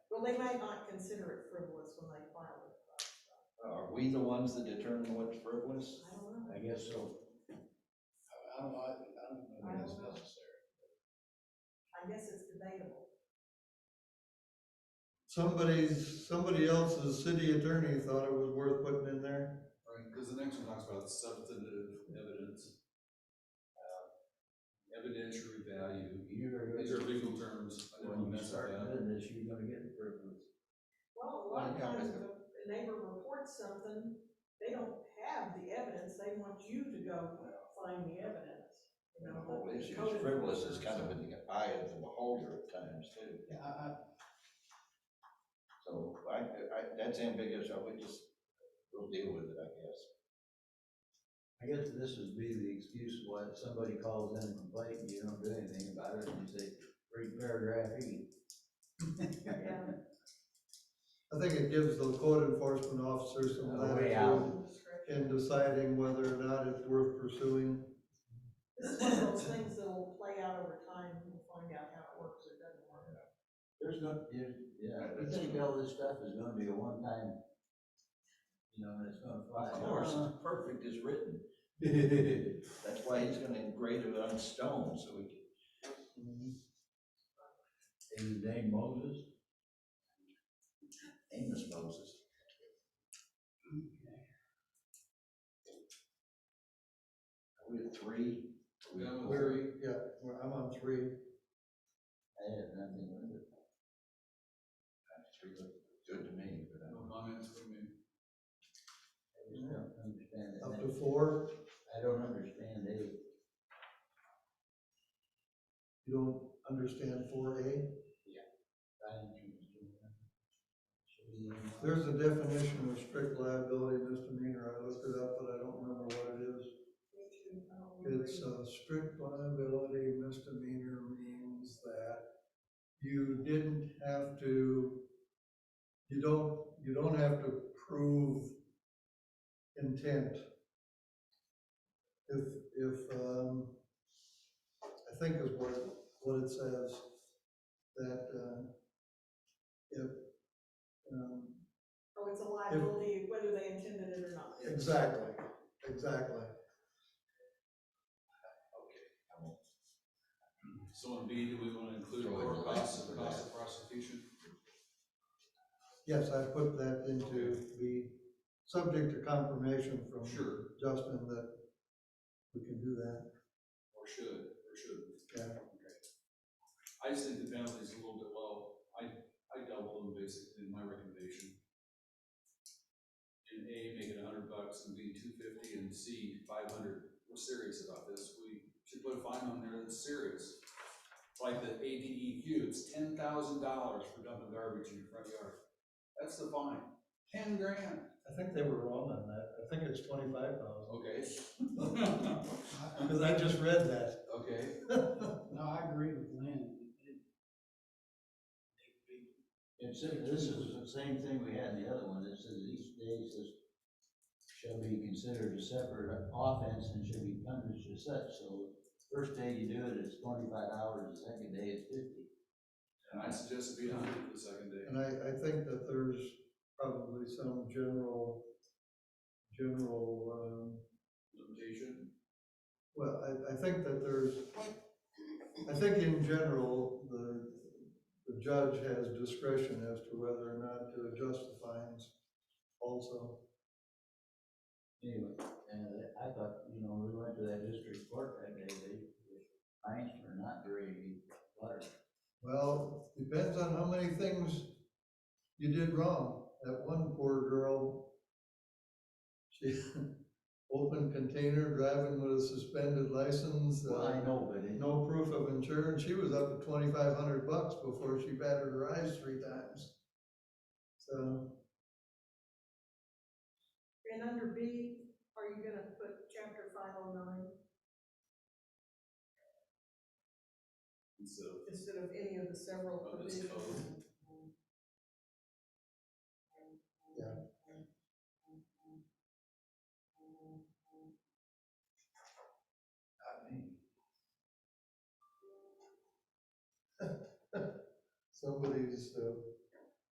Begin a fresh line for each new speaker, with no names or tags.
Well, they might not consider it frivolous when they file it.
Are we the ones that determine what's frivolous?
I don't know.
I guess so.
I- I don't, know, I I don't know
I
if that's
don't know.
necessary.
I guess it's debatable.
Somebody's, somebody else's city attorney thought it was worth putting in there.
Right, because the next one talks about substantive evidence, uh, evidentiary value,
You're
these
gonna,
are legal terms, I don't
when
wanna
you
mess with
start
that.
doing this, you're gonna get improvements.
Well, a lot of
Well, yeah,
times a neighbor reports something, they don't have the evidence, they want you to go find the evidence. you
And
know,
the whole
but
issue
code
is frivolous is
enforcement,
kind of in the eye of the beholder at times too.
Yeah, I, I,
So I, I, that's ambiguous, I would just, we'll deal with it, I guess.
I guess this would be the excuse why if somebody calls in and complains, and you don't do anything about it, and you say, read paragraph E.
Yeah.
I think it gives the code enforcement officer some
A way out.
latitude
code discretion.
in deciding whether or not it's worth pursuing.
This is one of those things that'll play out over time, we'll find out how it works or doesn't work.
There's no, there's, yeah, you think all this stuff is gonna be a one-time, you know, and it's gonna fly.
Uh,
Of course, it's perfect is written, that's why he's gonna engrave it on stone, so we can,
He was named Moses.
Amos Moses. Are we at three?
we have a
Where,
three,
yeah, well, I'm on three.
I had nothing with it.
Three look good to me, but uh, I
no comments from me.
I just don't understand it.
Up to four,
I don't understand it.
you don't understand four A?
I didn't understand that. Should be in-
There's a definition of strict liability misdemeanor, I looked it up, but I don't remember what it is. It's uh, a strict liability misdemeanor means that you didn't have to, you don't, you don't have to prove intent. If, if, um, I think is what, what it says, that, uh, if, um,
Oh, it's a liability, whether they intended it or not.
exactly, exactly.
So on B, do we wanna include
Throw it
or
in
cost,
there.
cost of prosecution?
Yes, I put that into the subject to confirmation from
Sure,
Justin that we can do that.
or should, or should.
Yeah.
I just think the penalty's a little bit low. I, I doubled them basically in my recommendation. In A, make it a hundred bucks, and B, two fifty, and C, five hundred. We're serious about this. We should put a fine on there that's serious. It's Like the ADEQ, it's ten thousand dollars for dumping garbage in your front yard. That's the fine. Ten grand.
I think they were wrong on that. I think it's twenty-five thousand.
Okay.
Because I just read that.
Okay.
No, I agree with Lynn. It- it-
It's, this is the same thing we had in the other one, it says each day says shall be considered a separate offense and should be punished as such, so first day you do it, it's twenty-five hours, the second day it's fifty.
And I suggest it be a hundred for the second day.
And I, I think that there's probably some general, general, um,
Limitation.
well, I, I think that there's, I think in general, the, the judge has discretion as to whether or not to adjust the fines also.
Anyway, and I thought, you know, we went to that district court that day, they, fines were not very large.
Well, depends on how many things you did wrong. That one poor girl, she, open container, driving with a suspended license,
Well, I
uh,
know, but it,
no proof of insurance, she was up to twenty-five hundred bucks before she batted her eyes three times. So,
And under B, are you gonna put chapter five oh nine
And so,
instead of any of the several
Of this
provisions?
Yeah.
Not me.
somebody's, uh,